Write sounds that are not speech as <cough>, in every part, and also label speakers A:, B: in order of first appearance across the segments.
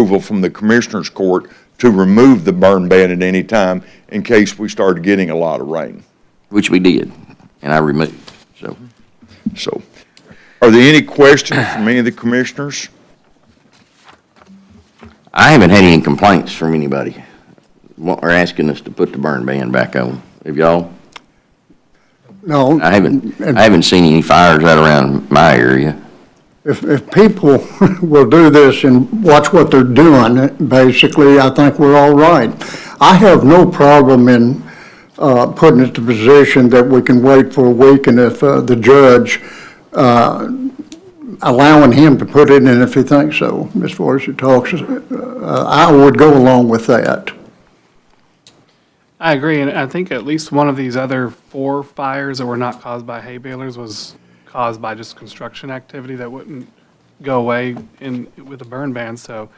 A: approval from the Commissioners Court to remove the burn ban at any time in case we started getting a lot of rain.
B: which we did, and I removed, so.
A: So, are there any questions from any of the commissioners?
B: I haven't had any complaints from anybody, what, or asking us to put the burn ban back on. Have y'all?
C: No.
B: I haven't,
C: and
B: I haven't seen any fires out around my area.
C: If, if people <laughs> will do this and watch what they're doing, basically, I think we're all right. I have no problem in, uh, putting it to position that we can wait for a week and if, uh, the judge, uh, allowing him to put it in if he thinks so, as far as it talks, uh, I would go along with that.
D: I agree, and I think at least one of these other four fires that were not caused by hay balers was caused by just construction activity that wouldn't go away in, with a burn ban, so,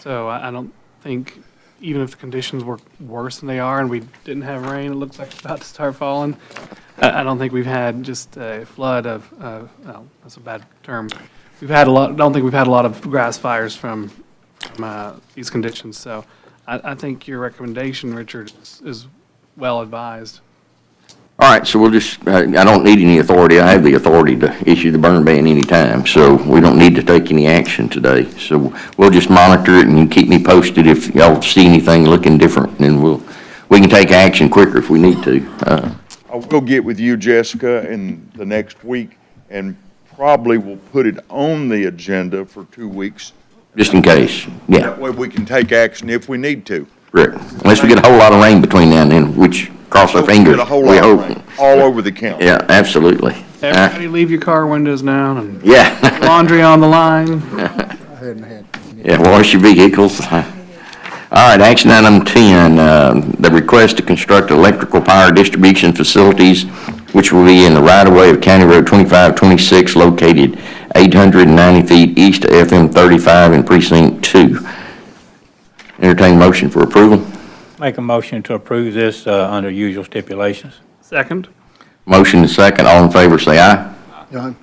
D: so I, I don't think, even if the conditions were worse than they are and we didn't have rain, it looks like it's about to start falling, I, I don't think we've had just a flood of, uh, well, that's a bad term. We've had a lot, I don't think we've had a lot of grass fires from, from, uh, these conditions, so I, I think your recommendation, Richard, is, is well advised.
B: All right, so we'll just, I, I don't need any authority. I have the authority to issue the burn ban anytime, so we don't need to take any action today. So we'll just monitor it and you keep me posted if y'all see anything looking different, and we'll, we can take action quicker if we need to. Uh,
A: I will get with you, Jessica, in the next week, and probably will put it on the agenda for two weeks.
B: just in case, yeah.
A: That way we can take action if we need to.
B: Correct. Unless we get a whole lot of rain between now and then, which cross our
A: Hope we
B: fingers.
A: Get a whole lot
B: we
A: of
B: hope.
A: rain all over the county.
B: Yeah, absolutely. Uh,
D: Everybody leave your car windows down and
B: Yeah, <laughs>
D: laundry on the line.
C: I hadn't had.
B: yeah, wash your vehicles. All right, action item 10, uh, the request to construct electrical power distribution facilities, which will be in the right-of-way of County Road 2526, located 890 feet east of FM 35 in Precinct 2. Entertain motion for approval.
E: Make a motion to approve this uh, under usual stipulations.
D: Second?
B: Motion is second, all in favor, say aye.
C: Done.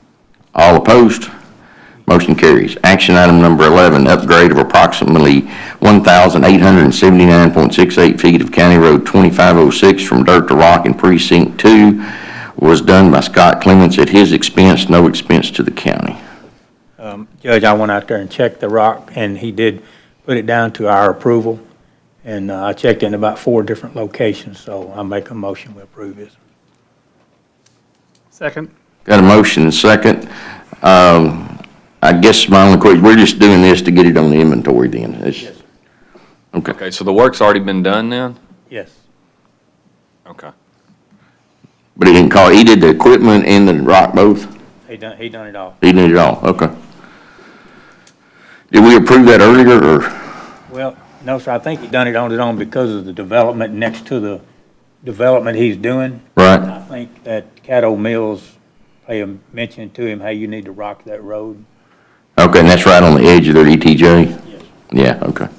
B: All opposed? Motion carries. Action item number 11, upgrade of approximately 1,879.68 feet of County Road 2506 from dirt to rock in Precinct 2 was done by Scott Clements at his expense, no expense to the county.
E: Um, Judge, I went out there and checked the rock, and he did put it down to our approval, and uh, I checked in about four different locations, so I make a motion we approve this.
D: Second?
B: Got a motion and second. Um, I guess my only question, we're just doing this to get it on the inventory then. It's- Okay.
F: Okay, so the work's already been done then?
E: Yes.
F: Okay.
B: But he didn't call, he did the equipment and the rock both?
E: He done, he done it all.
B: He did it all, okay. Did we approve that earlier, or,
E: Well, no, sir, I think he done it on his own because of the development next to the development he's doing. And
B: right?
E: I think that Caddo Mills, they mentioned to him, hey, you need to rock that road.
B: Okay, and that's right on the edge of their ETJ?
E: Yes.
B: Yeah, okay.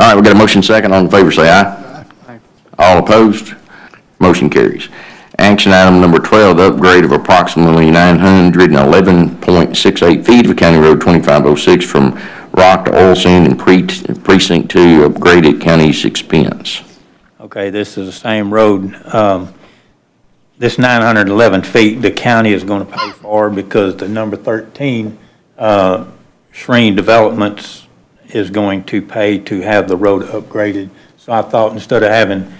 B: All right, we got a motion second, all in favor, say aye.
D: Aye.
B: All opposed? Motion carries. Action item number 12, the upgrade of approximately 911.68 feet of County Road 2506 from rock to oil sand in pre- precinct 2, upgraded county's expense.
E: Okay, this is the same road. Um, This 911 feet, the county is going to pay for because the number 13 uh, Shreen Developments is going to pay to have the road upgraded. So I thought instead of having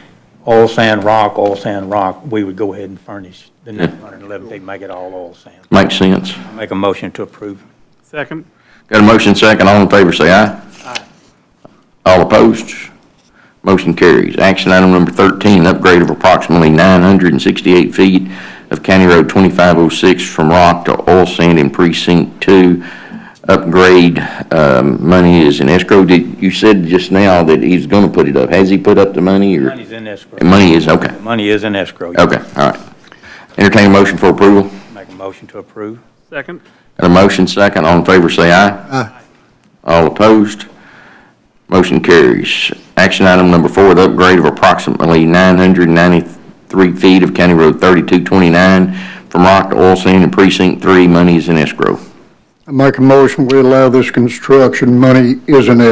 E: oil sand rock, oil sand rock, we would go ahead and furnish the 911 feet, make it all oil sand.
B: Makes sense?
E: Make a motion to approve.
D: Second?
B: Got a motion second, all in favor, say aye. All opposed? Motion carries. Action item number 13, upgrade of approximately 968 feet of County Road 2506 from rock to oil sand in Precinct 2. Upgrade um, money is in escrow. Did You said just now that he's going to put it up. Has he put up the money, or?
E: Money's in escrow.
B: Money is, okay,
E: Money is in escrow.
B: okay, all right. Entertain a motion for approval.
E: Make a motion to approve.
D: Second?
B: Got a motion second, all in favor say aye.
C: Aye.
B: All opposed? Motion carries. Action item number four, the upgrade of approximately 993 feet of County Road 3229 from rock to oil sand in Precinct 3, money is in escrow.
C: I make a motion, we allow this construction, money isn't